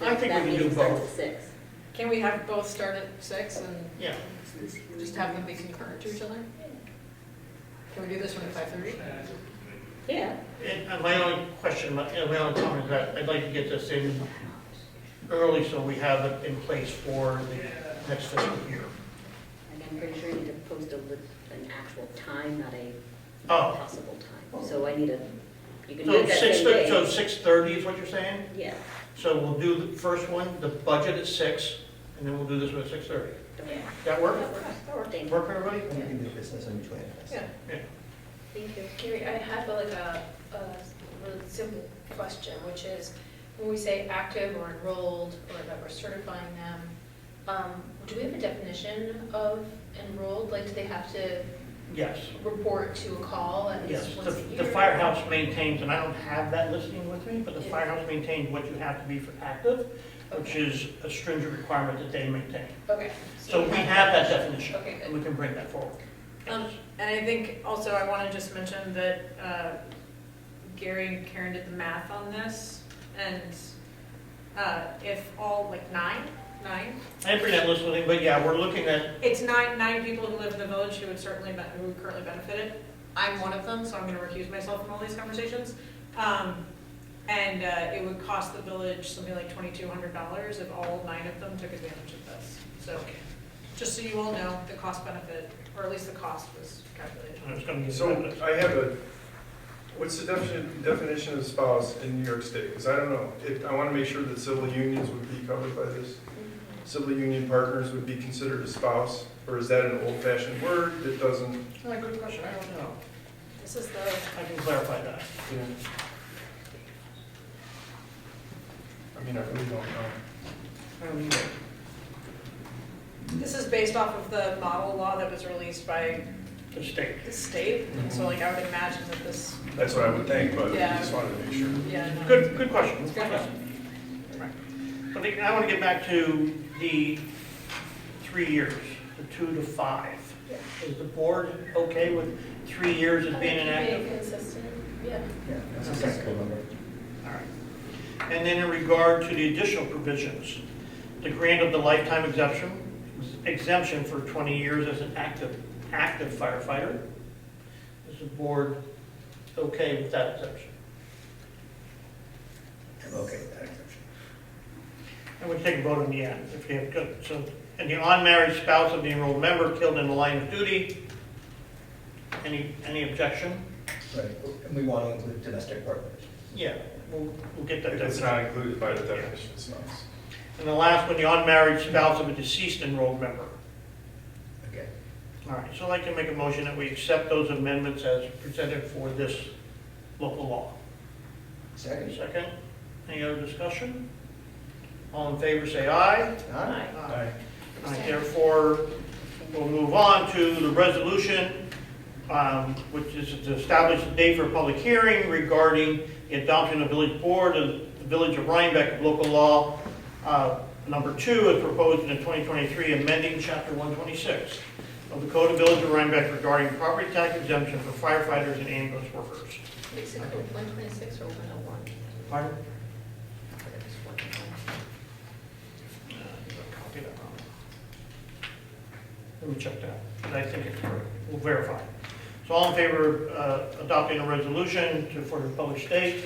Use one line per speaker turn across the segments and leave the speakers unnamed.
I think we
that
can do
meeting starts at
both.
six.
Can we have both start at six and
Yeah.
just have them be concurrent to each other? Can we do this one at five thirty?
Yeah,
And and my only question, my and my only comment is that I'd like to get this in early so we have it in place for the next fiscal year.
and I'm pretty sure you need to post a, li- an actual time, not a
Oh.
possible time. So I need a, you can do
So
it that
six,
same
thir- so
day.
six thirty is what you're saying?
Yeah,
So we'll do the first one, the budget at six, and then we'll do this one at six thirty.
okay,
That work?
that works, thank you.
Work for everybody?
And you can do business on each manifest.
Yeah.
Thank you. Gary, I have like a, a really simple question, which is, when we say active or enrolled, or that we're certifying them, um, do we have a definition of enrolled? Like, do they have to
Yes,
report to a call at
yes.
least
The
once a year?
the firehouse maintains, and I don't have that listing with me, but the firehouse maintains what you have to be for active, which is a stringent requirement that they maintain.
Okay.
So
you
we have that definition,
Okay,
and
good.
we can bring that forward.
Um, and I think also I want to just mention that, uh, Gary and Karen did the math on this. And, uh, if all, like nine, nine,
I didn't bring that list with me, but yeah, we're looking at,
it's nine, nine people who live in the village who would certainly, be- who would currently benefit it. I'm one of them, so I'm gonna recuse myself from all these conversations. Um, and, uh, it would cost the village something like twenty-two hundred dollars if all nine of them took advantage of this. So, just so you all know, the cost benefit, or at least the cost was calculated.
and it's gonna be.
So I have a, what's the definition, definition of spouse in New York State? Because I don't know, It- I want to make sure that civil unions would be covered by this. Civil union partners would be considered a spouse, or is that an old-fashioned word that doesn't?
Oh, Good question, I don't know.
This is the
I can clarify that.
I mean, I really don't know.
I don't know.
This is based off of the model law that was released by
The state.
the state, and so like I would imagine that this,
That's what I would think, but I
Yeah.
just wanted to make sure.
yeah, no.
Good, good question.
It's a good question.
I think, I want to get back to the three years, the two to five. Is the board okay with three years as being
Being
inactive?
consistent, yeah.
Yeah, that's a sensible number.
All right. And then in regard to the additional provisions, the grant of the lifetime exemption, exemption for 20 years as an active, active firefighter. Is the board okay with that exemption?
I'm okay with that exception.
And we can take a vote on the end, if you have, good. so, and the unmarried spouse of the enrolled member killed in the line of duty. Any, any objection?
Right, and we want to include domestic partners.
Yeah, we'll, we'll get that
If it's
definition.
not included by the definition of spouse.
And the last one, the unmarried spouse of a deceased enrolled member.
Okay.
All right, so I'd like to make a motion that we accept those amendments as presented for this local law.
Second?
Second, any other discussion? All in favor, say aye.
Aye.
Aye. All right, Therefore, we'll move on to the resolution, um, which is to establish a date for a public hearing regarding the adoption of village board of the Village of Rhinebeck of local law, uh, number two, as proposed in the 2023 amending chapter 126 of the Code of Village of Rhinebeck regarding property tax exemption for firefighters and ambulance workers.
Is it one twenty-six or one oh one?
Pardon?
It's
Uh, Copy that wrong. Let me check that, but I think it's correct. We'll verify. So all in favor of uh, adopting a resolution to, for the published date,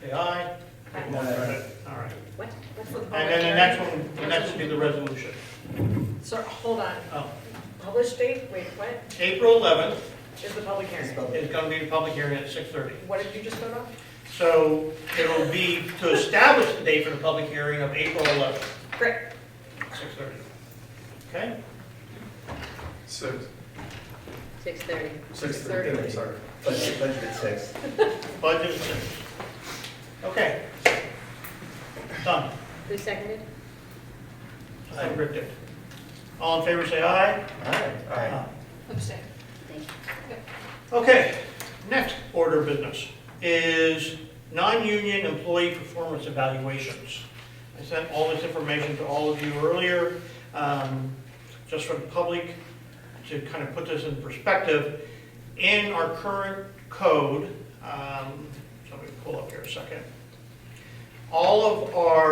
say aye.
Aye.
All right. All right.
What, what's
For
the
the
And then
public
the
hearing.
next one, the next will be the resolution.
So, hold on,
Oh,
published date, wait, what,
April 11th
is the public
It's
hearing?
public.
is going to be the public hearing at 6:30.
What did you just vote on?
So it'll be to establish the date for the public hearing of April 11th,
Great,
6:30. Okay?
Six,
Six thirty.
six thirty, I'm sorry.
Budget, budget at six.
Budget is six. Okay. Done.
Who seconded?
I ripped it. All in favor, say aye.
Aye. Aye.
abstain.
Thank you.
Okay, next order of business is non-union employee performance evaluations. I sent all this information to all of you earlier, um, just for the public, to kind of put this in perspective. In our current code, um, so let me pull up here a second. All of our